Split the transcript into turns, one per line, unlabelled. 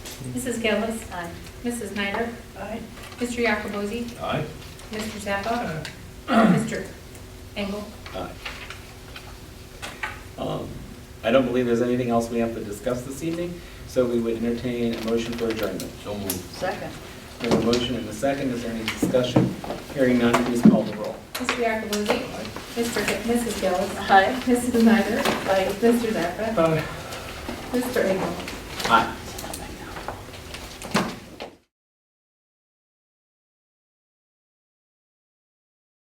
Mrs. Gillis. Aye. Mrs. Snyder.
Aye.
Mr. Yacobozi.
Aye.
Mr. Zappa. Mr. Engel.
Aye. Um, I don't believe there's anything else we have to discuss this evening, so we would entertain a motion for adjournment.
So moved.
Second.
We have a motion and a second, is there any discussion? Hearing none, please call the roll.
Mr. Yacobozi.
Aye.
Mr. Gi- Mrs. Gillis.
Aye.
Mrs. Snyder.
Aye.
Mr. Zappa.
Aye.
Mr. Engel.
Aye.